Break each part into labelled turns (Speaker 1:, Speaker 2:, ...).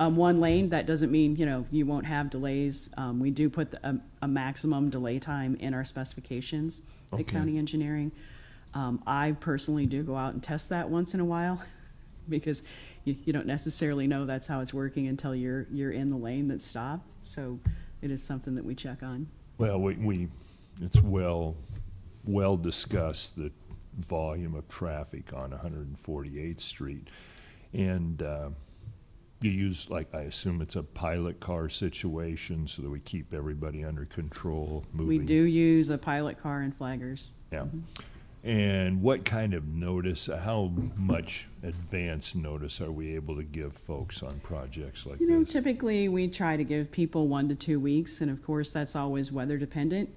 Speaker 1: um, one lane, that doesn't mean, you know, you won't have delays. Um, we do put the- a, a maximum delay time in our specifications at county engineering. Um, I personally do go out and test that once in a while because you, you don't necessarily know that's how it's working until you're, you're in the lane that's stopped. So it is something that we check on.
Speaker 2: Well, we, we, it's well, well discussed, the volume of traffic on 148th Street. And uh, you use, like, I assume it's a pilot car situation so that we keep everybody under control,
Speaker 1: We
Speaker 2: moving.
Speaker 1: do use a pilot car and flaggers.
Speaker 2: Yeah.
Speaker 1: Mm-hmm.
Speaker 2: And what kind of notice, how much advance notice are we able to give folks on projects like
Speaker 1: You know,
Speaker 2: this?
Speaker 1: typically, we try to give people one to two weeks, and of course, that's always weather dependent.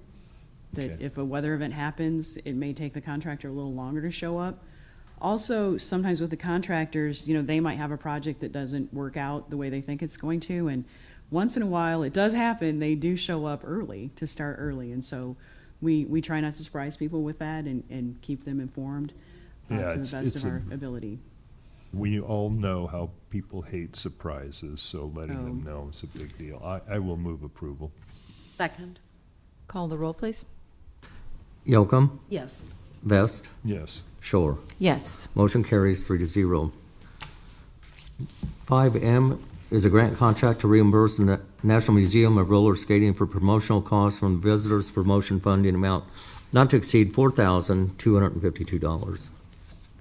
Speaker 1: That
Speaker 2: Okay.
Speaker 1: if a weather event happens, it may take the contractor a little longer to show up. Also, sometimes with the contractors, you know, they might have a project that doesn't work out the way they think it's going to, and once in a while, it does happen, they do show up early, to start early, and so we, we try not to surprise people with that and, and keep them informed uh,
Speaker 2: Yeah,
Speaker 1: to
Speaker 2: it's-
Speaker 1: the best
Speaker 2: it's
Speaker 1: of
Speaker 2: a-
Speaker 1: our ability.
Speaker 2: We all know how people hate surprises, so letting them
Speaker 1: Oh.
Speaker 2: know is a big deal. I, I will move approval.
Speaker 3: Second.
Speaker 4: Call the roll, please.
Speaker 5: Yocum,
Speaker 3: Yes.
Speaker 5: Vest,
Speaker 2: Yes.
Speaker 5: Shore.
Speaker 4: Yes.
Speaker 5: Motion carries three to zero. Five M is a grant contract to reimburse the Na- National Museum of Roller Skating for promotional costs from Visitors Promotion Fund in amount not to exceed four thousand two hundred and fifty-two dollars.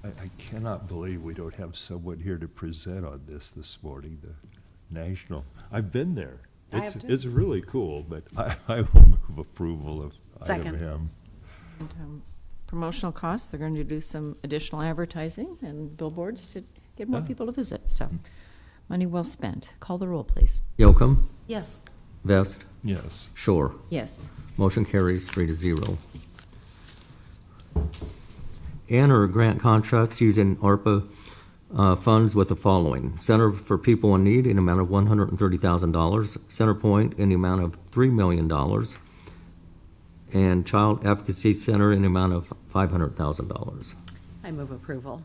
Speaker 2: I, I cannot believe we don't have someone here to present on this this morning, the national. I've been there.
Speaker 3: I have
Speaker 2: It's,
Speaker 3: too.
Speaker 2: it's really cool, but I, I will move approval of item
Speaker 3: Second.
Speaker 2: M.
Speaker 4: And, um, Promotional costs, they're going to do some additional advertising and billboards to get more
Speaker 2: Ah.
Speaker 4: people to visit, so money well spent. Call the roll, please.
Speaker 5: Yocum,
Speaker 3: Yes.
Speaker 5: Vest,
Speaker 2: Yes.
Speaker 5: Shore.
Speaker 4: Yes.
Speaker 5: Motion carries three to zero. Enter grant contracts using ARPA uh, funds with the following. Center for People in Need in amount of $130,000. Center Point in the amount of $3 million. And Child Advocacy Center in the amount of $500,000.
Speaker 3: I move approval.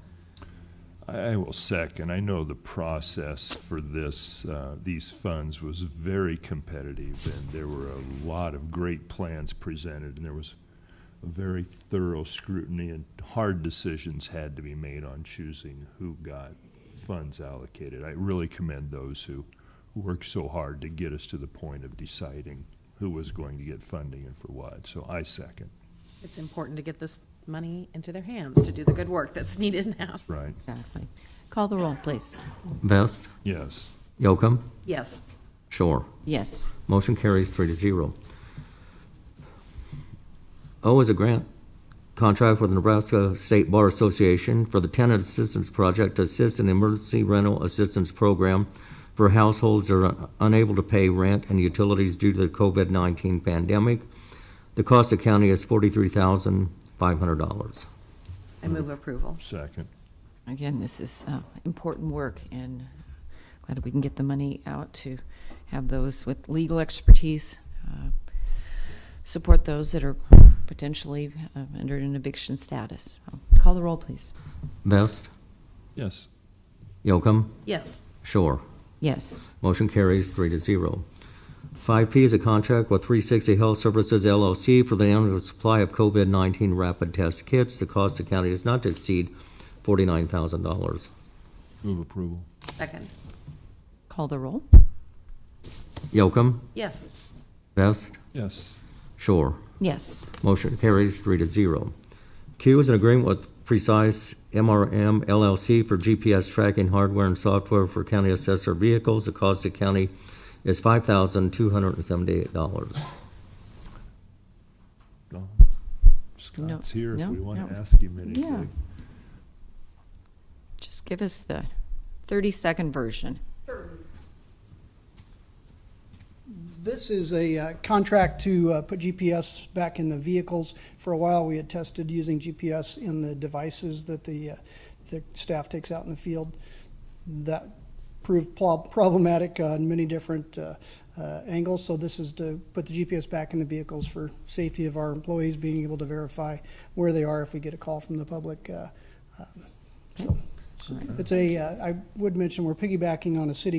Speaker 2: I I will second. I know the process for this, uh, these funds was very competitive, and there were a lot of great plans presented, and there was a very thorough scrutiny, and hard decisions had to be made on choosing who got funds allocated. I really commend those who worked so hard to get us to the point of deciding who was going to get funding and for what. So I second.
Speaker 3: It's important to get this money into their hands to do the good work that's needed now.
Speaker 2: Right.
Speaker 4: Exactly. Call the roll, please.
Speaker 5: Vest,
Speaker 2: Yes.
Speaker 5: Yocum,
Speaker 3: Yes.
Speaker 5: Shore.
Speaker 4: Yes.
Speaker 5: Motion carries three to zero. O is a grant contract with the Nebraska State Bar Association for the Tenant Assistance Project to assist in emergency rental assistance program for households that are unable to pay rent and utilities due to the COVID-19 pandemic. The cost to county is $43,500.
Speaker 3: I move approval.
Speaker 2: Second.
Speaker 4: Again, this is uh, important work, and glad we can get the money out to have those with legal expertise uh, support those that are potentially uh, under an eviction status. Call the roll, please.
Speaker 5: Vest,
Speaker 2: Yes.
Speaker 5: Yocum,
Speaker 3: Yes.
Speaker 5: Shore.
Speaker 4: Yes.
Speaker 5: Motion carries three to zero. Five P is a contract with three sixty Health Services LLC for the annual supply of COVID-19 rapid test kits. The cost to county is not to exceed forty-nine thousand dollars.
Speaker 2: Move approval.
Speaker 3: Second.
Speaker 4: Call the roll.
Speaker 5: Yocum,
Speaker 3: Yes.
Speaker 5: Vest,
Speaker 2: Yes.
Speaker 5: Shore.
Speaker 4: Yes.
Speaker 5: Motion carries three to zero. Q is an agreement with Precise MRM LLC for GPS tracking hardware and software for county assessor vehicles. The cost to county is five thousand two hundred and seventy-eight dollars.
Speaker 2: Well, Scott's here if
Speaker 4: no,
Speaker 2: we want to
Speaker 4: no.
Speaker 2: ask him
Speaker 4: Yeah.
Speaker 2: anything.
Speaker 4: Just give us the 30-second version.
Speaker 6: This is a uh, contract to uh, put GPS back in the vehicles. For a while, we had tested using GPS in the devices that the, uh, the staff takes out in the field. That proved pl- problematic on many different uh, uh, angles, so this is to put the GPS back in the vehicles for safety of our employees, being able to verify where they are if we get a call from the public. uh, um, so- so It's a, uh, I would mention, we're piggybacking on a city